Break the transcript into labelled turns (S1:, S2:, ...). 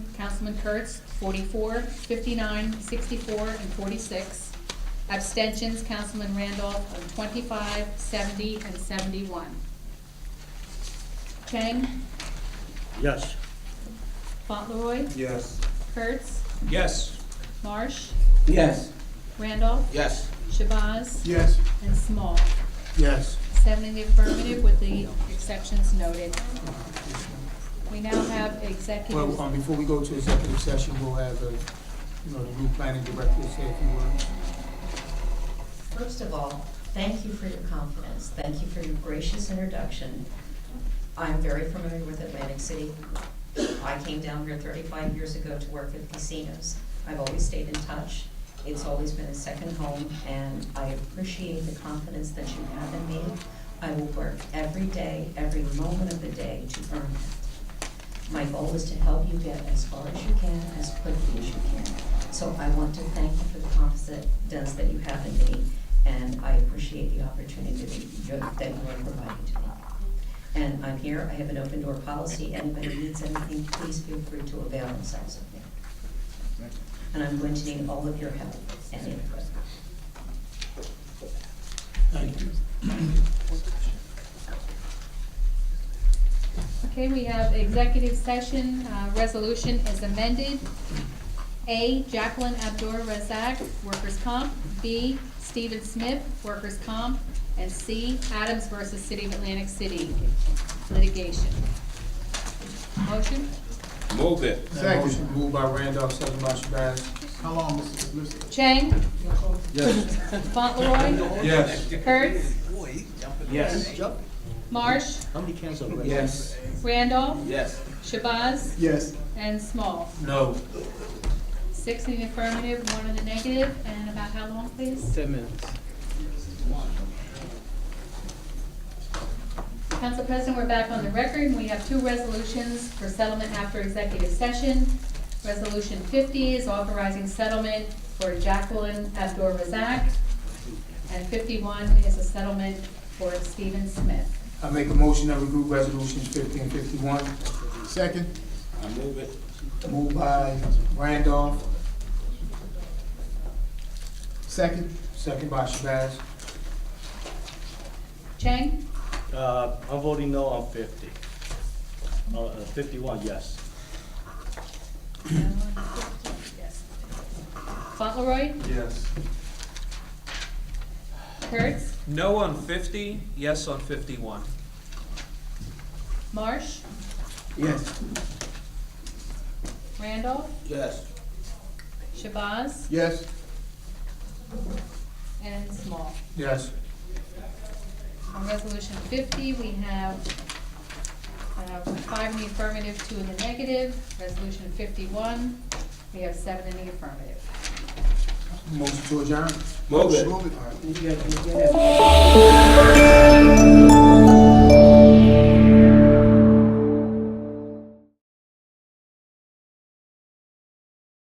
S1: Councilman Kurtz, 44, 59, 64, and 46. Abstentions, Councilman Randolph of 25, 70, and 71. Chang,
S2: Yes.
S1: Fauntleroy,
S3: Yes.
S1: Kurtz,
S3: Yes.
S1: Marsh,
S4: Yes.
S1: Randolph,
S4: Yes.
S1: Shabazz,
S3: Yes.
S1: and Small.
S3: Yes.
S1: Seven in the affirmative with the exceptions noted. We now have executive.
S3: Well, um, before we go to executive session, we'll have, uh, you know, the new planning director say a few words.
S5: First of all, thank you for your confidence. Thank you for your gracious introduction. I'm very familiar with Atlantic City. I came down here 35 years ago to work at casinos. I've always stayed in touch. It's always been a second home, and I appreciate the confidence that you have in me. I will work every day, every moment of the day to earn that. My goal is to help you get as far as you can, as quickly as you can. So I want to thank you for the confidence that you have in me, and I appreciate the opportunity that you that you are providing to me. And I'm here, I have an open door policy, anybody needs anything, please feel free to avail themselves of me. And I'm going to need all of your help and input.
S3: Thank you.
S1: Okay, we have executive session, uh, resolution is amended. A, Jacqueline Abdur Razak, workers' comp. B, Stephen Smith, workers' comp. And C, Adams versus City of Atlantic City litigation. Motion?
S4: Move it.
S3: That motion moved by Randolph, second by Shabazz. How long, Mrs. Lucy?
S1: Chang?
S2: Yes.
S1: Fauntleroy?
S3: Yes.
S1: Kurtz?
S4: Yes.
S1: Marsh?
S2: How many cans are left?
S4: Yes.
S1: Randolph?
S4: Yes.
S1: Shabazz?
S3: Yes.
S1: And Small.
S3: No.
S1: Six in the affirmative, one in the negative, and about how long, please?
S4: Ten minutes.
S1: Council President, we're back on the record, and we have two resolutions for settlement after executive session. Resolution fifty is authorizing settlement for Jacqueline Abdur Razak, and fifty-one is a settlement for Stephen Smith.
S3: I make a motion that we group resolutions fifty and fifty-one. Second.
S4: I move it.
S3: Moved by Randolph. Second. Second by Shabazz.
S1: Chang?
S2: Uh, I'm voting no on fifty. Uh, uh, fifty-one, yes.
S1: Yes. Fauntleroy?
S3: Yes.
S1: Kurtz?
S6: No on fifty, yes on fifty-one.
S1: Marsh?
S3: Yes.
S1: Randolph?
S4: Yes.
S1: Shabazz?
S3: Yes.
S1: And Small.
S3: Yes.
S1: On resolution fifty, we have uh, five in the affirmative, two in the negative. Resolution fifty-one, we have seven in the affirmative.
S3: Motion to adjourn.
S4: Move it.
S3: Move it.
S4: You gotta- you gotta-